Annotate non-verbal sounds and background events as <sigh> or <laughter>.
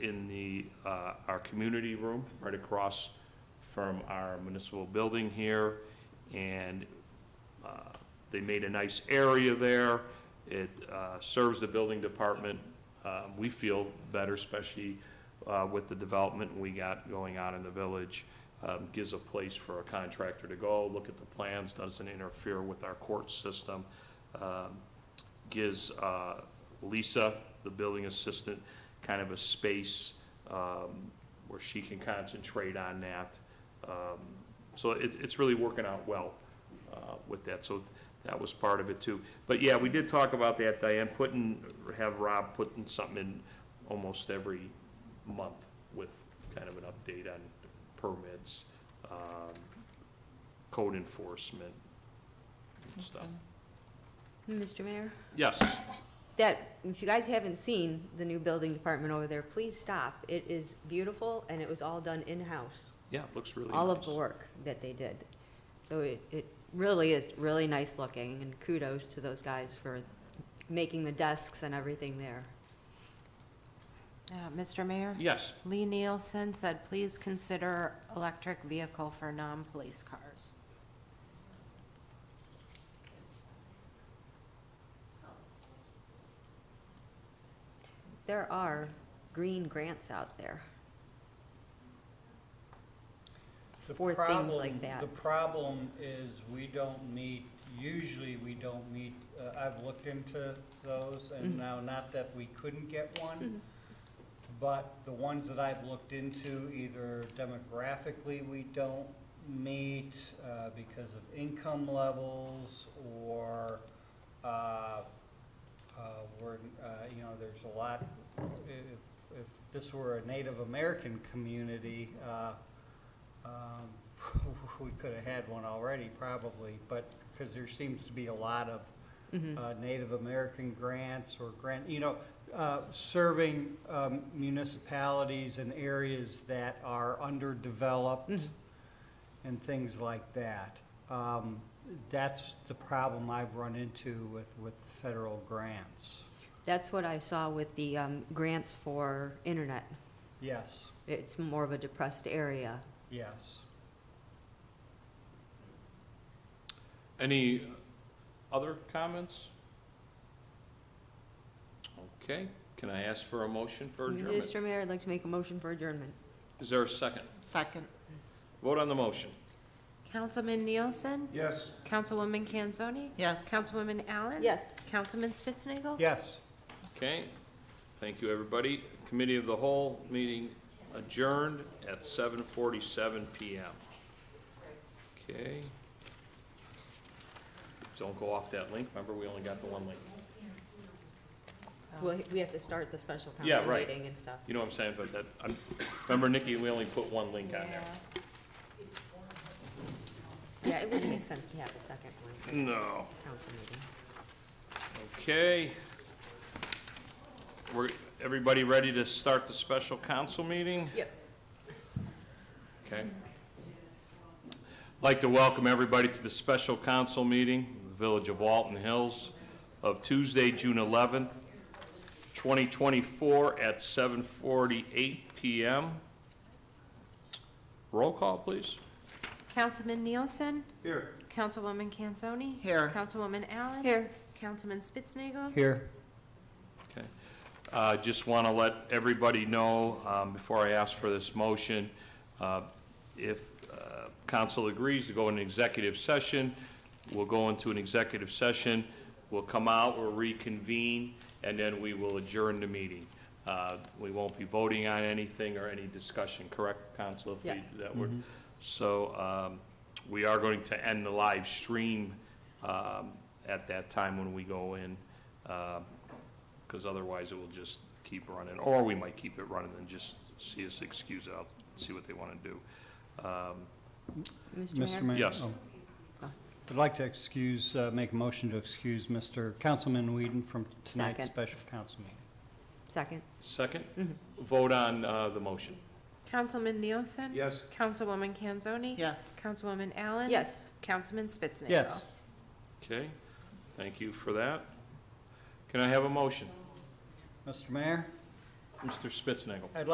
in the, uh, our community room, right across from our municipal building here, and uh, they made a nice area there. It uh, serves the building department, uh, we feel better, especially uh, with the development we got going on in the village. Um, Gives a place for a contractor to go, look at the plans, doesn't interfere with our court system. Um, Gives uh, Lisa, the building assistant, kind of a space um, where she can concentrate on that. Um, So it, it's really working out well uh, with that, so that was part of it too. But yeah, we did talk about that, Diane, putting, have Rob putting something in almost every month with kind of an update on permits, um, code enforcement and stuff. Mr. Mayor, Yes, that, if you guys haven't seen the new building department over there, please stop. It is beautiful, and it was all done in-house, yeah, it looks really nice. all of the work that they did. So it, it really is really nice looking, and kudos to those guys for making the desks and everything there. Uh, Mr. Mayor? Yes, Lee Nielsen said, please consider electric vehicle for non-police cars. There are green grants out there. The for things like problem- that. The problem is we don't meet, usually we don't meet, uh, I've looked into those and Mhm. now not that we couldn't get Mm-hmm. one, but the ones that I've looked into, either demographically we don't meet uh, because of income levels or, uh, uh, we're, uh, you know, there's a lot, if, if this were a Native American community, uh, um, <laughs> we could have had one already probably, but, because there seems to be a lot of Mm. uh, Native American grants or grant, you know, uh, serving um, municipalities and areas that are underdeveloped and things like that. Um, That's the problem I've run into with, with federal grants. That's what I saw with the, um, grants for internet. Yes, It's more of a depressed area. yes. any other comments? Okay, can I ask for a motion for adjournment? Mr. Mayor, I'd like to make a motion for adjournment. Is there a second? Second. Vote on the motion. Councilman Nielsen? Yes. Councilwoman Kanzoni? Yes. Councilwoman Allen? Yes. Councilman Spitznagel. Yes. Okay, thank you, everybody. Committee of the Whole meeting adjourned at 7:47 PM. Okay. Don't go off that link, remember, we only got the one link. Well, we have to start the special Um, Yeah, council right. meeting and stuff. You know what I'm saying, but that, I'm- remember, Nikki, we only put one link on there. Yeah, it would make sense to have a second one, No. council meeting. Okay. We're, everybody ready to start the special council meeting? Yep. Okay. I'd like to welcome everybody to the special council meeting, of the Village of Walton Hills, of Tuesday, June 11th, 2024, at 7:48 PM. Roll call, please. Councilman Nielsen? Here. Councilwoman Kanzoni? Here. Councilwoman Allen? Here. Councilman Spitznagel. Here. Okay. Uh, Just want to let everybody know, um, before I ask for this motion, uh, if uh, council agrees to go into executive session, we'll go into an executive session, we'll come out, we'll reconvene, and then we will adjourn the meeting. Uh, We won't be voting on anything or any discussion, correct, council? if we- Yes. That we so um, we are going to end the live stream um, at that time when we go in, um, because otherwise it will just keep running, or we might keep it running and just see us excuse out, see what they want to do. Um, Mr. Mayor? Mayor? Yes. Oh. Oh. I'd like to excuse, uh, make a motion to excuse Mr. Councilman Whedon from tonight's Second. special council meeting. Second. Second, Mhm. vote on uh, the motion. Councilman Nielsen? Yes. Councilwoman Kanzoni? Yes. Councilwoman Allen? Yes. Councilman Spitznagel. Yes. Okay, thank you for that. Can I have a motion? Mr. Mayor? Mr. Spitznagel.